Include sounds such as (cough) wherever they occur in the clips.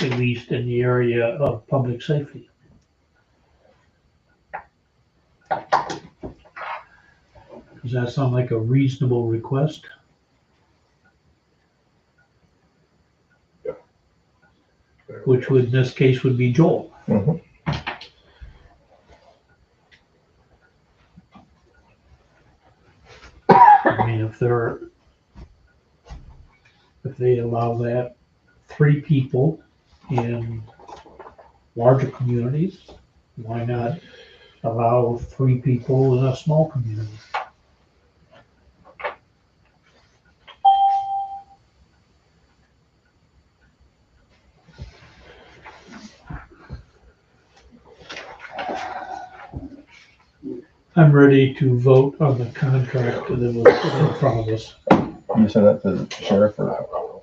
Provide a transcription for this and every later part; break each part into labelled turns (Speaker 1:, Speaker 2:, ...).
Speaker 1: released in the area of public safety. Does that sound like a reasonable request? Which would, in this case, would be Joel.
Speaker 2: Mhm.
Speaker 1: I mean, if they're, if they allow that, three people in larger communities, why not allow three people in a small community? I'm ready to vote on the contract that was in front of us.
Speaker 2: You said that to the sheriff or?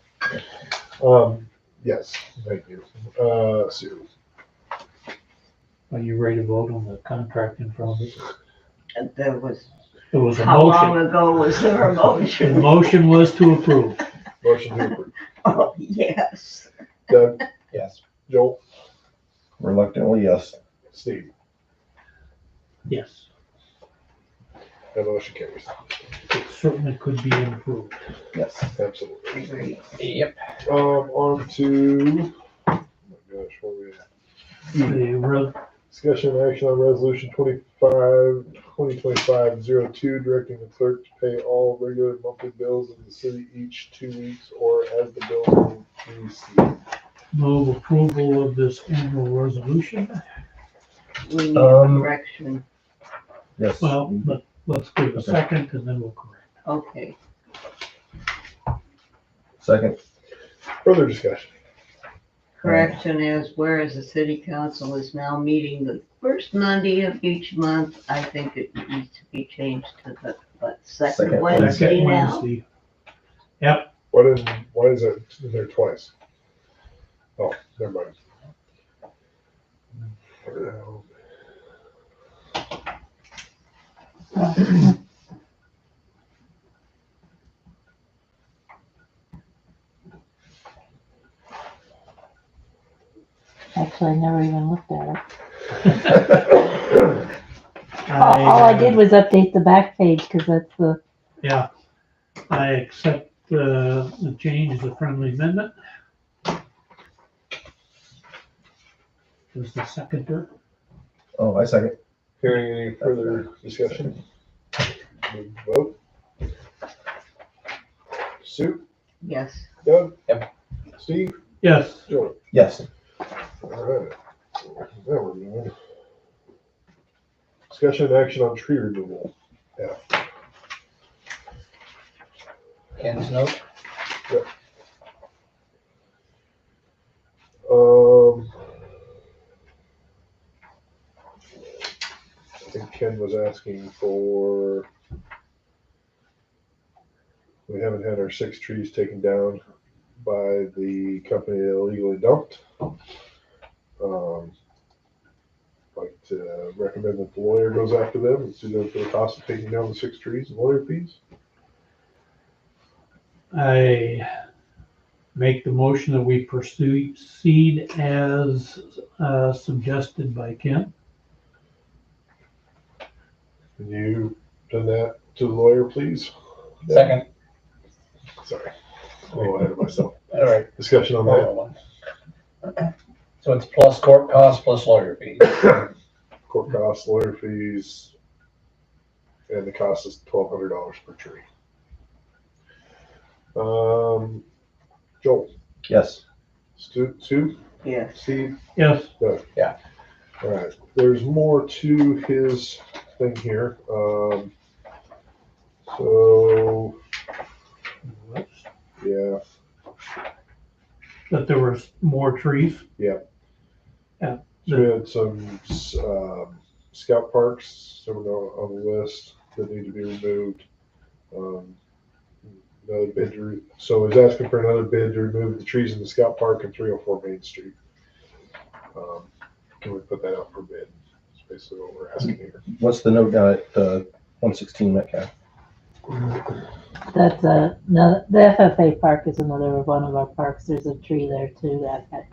Speaker 3: Um, yes, thank you. Uh, Sue,
Speaker 1: Are you ready to vote on the contract in front of us?
Speaker 4: And There was,
Speaker 1: It was a
Speaker 4: how long
Speaker 1: motion.
Speaker 4: ago was there a
Speaker 1: The (laughs)
Speaker 4: motion?
Speaker 1: motion was to approve.
Speaker 3: motion to approve.
Speaker 4: Oh, Yes,
Speaker 3: Doug,
Speaker 2: Yes.
Speaker 3: Joel,
Speaker 2: Reluctantly, yes.
Speaker 3: Steve,
Speaker 1: Yes,
Speaker 3: that motion carries.
Speaker 1: it certainly could be improved.
Speaker 2: Yes.
Speaker 3: Absolutely.
Speaker 4: agreed.
Speaker 2: Yep.
Speaker 3: Um, on to, oh my gosh, what are we at?
Speaker 1: The re-
Speaker 3: Discussion and action on resolution 25, 2025 02, directing the clerk to pay all regular monthly bills of the city each two weeks or as the bill is received.
Speaker 1: move approval of this annual resolution.
Speaker 4: We need a
Speaker 2: Um,
Speaker 4: correction,
Speaker 2: Yes.
Speaker 1: Well, let- let's give a second and then we'll correct.
Speaker 4: okay.
Speaker 2: Second,
Speaker 3: Further discussion.
Speaker 4: Correction is whereas the city council is now meeting the first Monday of each month, I think it needs to be changed to the, what, second
Speaker 2: Second
Speaker 4: Wednesday
Speaker 1: Second
Speaker 4: now?
Speaker 1: Wednesday,
Speaker 3: What is, why is it there twice? Oh, never mind. Um,
Speaker 5: Actually, I never even looked at it.
Speaker 1: I,
Speaker 5: All, all I did was update the back page because that's the,
Speaker 1: Yeah, I accept uh, the change as a friendly amendment. Is the seconder,
Speaker 2: oh, I second.
Speaker 3: Hearing any further discussion? We Vote. Sue,
Speaker 4: Yes,
Speaker 3: Doug? Yep. Steve,
Speaker 1: yes,
Speaker 3: Joel.
Speaker 2: Yes.
Speaker 3: Alright. Now we're moving. Discussion and action on tree removal.
Speaker 6: Ken's note,
Speaker 3: Um. I think Ken was asking for. We haven't had our six trees taken down by the company that illegally dumped. Um. Like to recommend that the lawyer goes after them and sue them for the cost of taking down the six trees and lawyer fees.
Speaker 1: I make the motion that we pursue seed as uh, suggested by Kent.
Speaker 3: Can you send that to the lawyer, please? (laughs)
Speaker 6: second,
Speaker 3: Sorry. A little ahead of myself.
Speaker 6: all right.
Speaker 3: Discussion on that.
Speaker 6: another one. So it's plus court costs plus lawyer fees.
Speaker 3: court costs, lawyer fees, and the cost is twelve hundred dollars per tree. Um, Joel,
Speaker 2: Yes.
Speaker 3: Stu, Sue,
Speaker 4: yes.
Speaker 3: Steve.
Speaker 1: Yes,
Speaker 3: All right, there's more to his thing here. Um, so yeah,
Speaker 1: that there were more trees.
Speaker 3: So we had some um, scout parks that were on on the list that need to be removed. Um, another bid to re- so he's asking for another bid to remove the trees in the scout park and 304 Main Street. Um, can we put that out for bid? That's basically what we're asking here.
Speaker 2: What's the note down at uh, 116 Metcalf?
Speaker 5: that's a, no, the FFA park is another one of our parks. There's a tree there too that had